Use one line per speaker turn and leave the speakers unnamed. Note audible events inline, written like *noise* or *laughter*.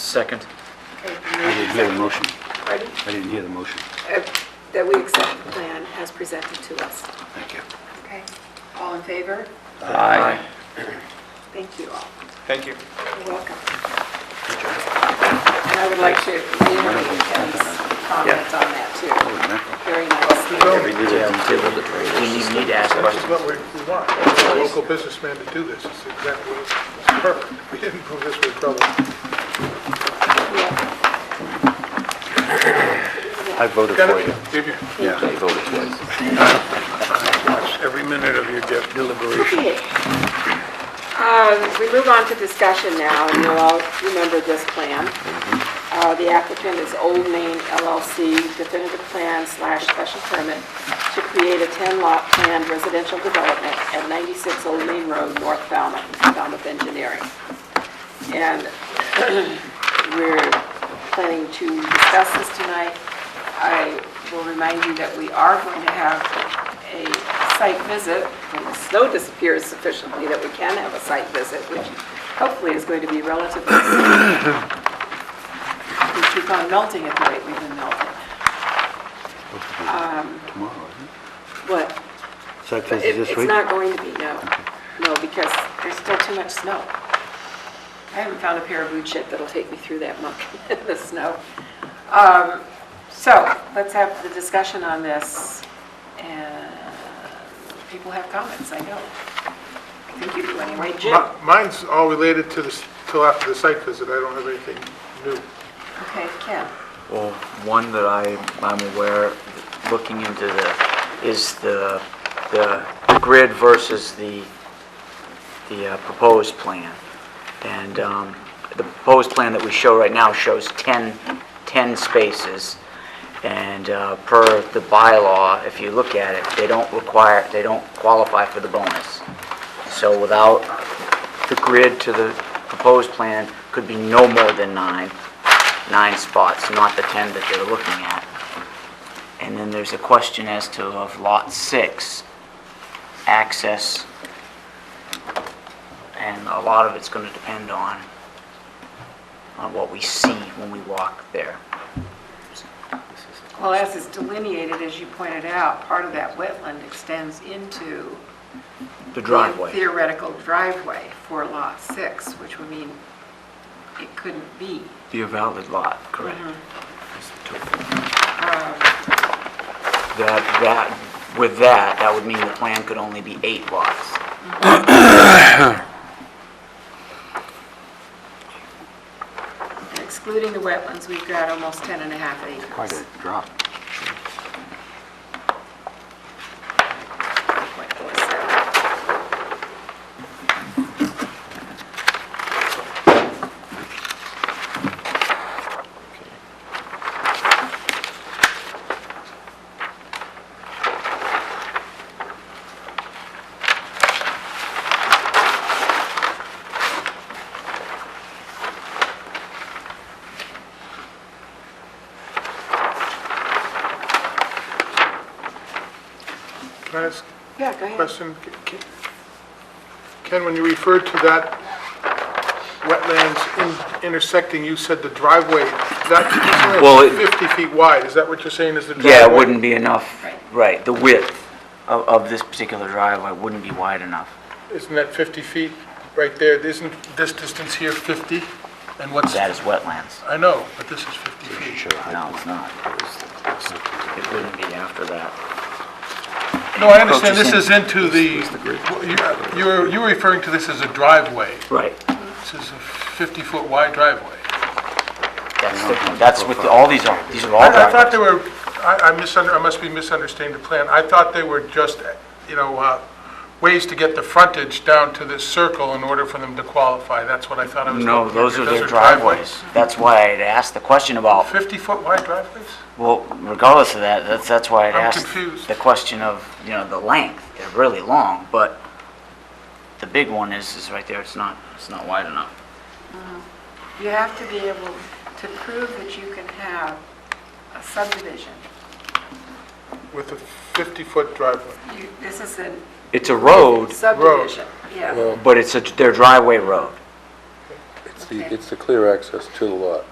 Second.
Okay,
I
made-
didn't hear the motion.
Pardon?
I didn't hear the motion.
Uh, That we accept the plan as presented to us.
Thank you.
Okay. All in favor?
Aye.
Thank you all.
Thank you.
You're welcome. And I would like to reiterate Kevin's comments on that, too. Very nice.
You need me to ask
That's
questions.
what we we want, a local businessman to do this, it's exactly, it's perfect. We didn't prove this, we probably,
Yeah.
I voted for you.
did you?
Yeah, I voted for you.
Watch every minute of your de- deliberation.
Okay. Uh, We move on to discussion now, and you'll all remember this plan. Uh, The applicant is Old Main LLC definitive plan slash special permit to create a 10-lot planned residential development at 96 Old Main Road, North Falmouth, Falmouth Engineering. And we're planning to discuss this tonight. I will remind you that we are going to have a site visit when the snow disappears sufficiently that we can have a site visit, which hopefully is going to be relatively soon. *coughs* We keep on melting at the rate we've been melting.
Tomorrow, isn't it?
What?
Site visit
It-
this
It's
week?
not going to be, no. No, because there's still too much snow. I haven't found a pair of boot shit that'll take me through that muck, *laughs* the snow. Um, So let's have the discussion on this, and people have comments, I know. I think you do anyway, Jim.
Mi- Mine's all related to this, till after the site visit, I don't have anything new.
Okay, Ken.
Well, one that I, I'm aware, looking into the, is the, the grid versus the, the uh, proposed plan. And um, the proposed plan that we show right now shows 10, 10 spaces. And uh, per the bylaw, if you look at it, they don't require, they don't qualify for the bonus. So without the grid to the proposed plan could be no more than nine, nine spots, not the 10 that they're looking at. And then there's a question as to of Lot 6, access, and a lot of it's going to depend on, on what we see when we walk there.
Well, as is delineated, as you pointed out, part of that wetland extends into
The
the
driveway.
theoretical driveway for Lot 6, which would mean it couldn't be.
Be a valid lot, correct. That's the total. That, that, with that, that would mean the plan could only be eight lots.
Excluding the wetlands, we've got almost 10 and a half
Quite a
acres.
drop.
0.47.
Can I ask
Yeah, go
a
ahead.
question? Ken- Ken, when you referred to that wetlands in- intersecting, you said the driveway, that,
Well, it-
50 feet wide, is that what you're saying is the driveway?
Yeah, it wouldn't be enough,
Right.
right, the width of, of this particular driveway wouldn't be wide enough.
Isn't that 50 feet right there? Isn't this distance here 50? And what's,
That is wetlands.
I know, but this is 50 feet.
No, it's not. It wouldn't be after that.
No, I understand, this is into the, you- you're, you're referring to this as a driveway.
Right.
This is a 50-foot wide driveway.
That's, the- that's with, the- all these are, these are all
I I thought
driveways.
they were, I I misunder, I must be misunderstanding the plan. I thought they were just, you know, uh, ways to get the frontage down to this circle in order for them to qualify. That's what I thought I was looking
No,
at.
those are their driveways. That's why I would asked the question about,
50-foot wide driveways?
well, regardless of that, that's, that's why I
I'm
asked
confused.
the question of, you know, the length, they're really long, but the big one is, is right there, it's not, it's not wide enough.
You have to be able to prove that you can have a subdivision.
With a 50-foot driveway.
You- This is a
It's a road,
subdivision. Yeah.
but it's a, their driveway road.
the, it's the clear access to the lot.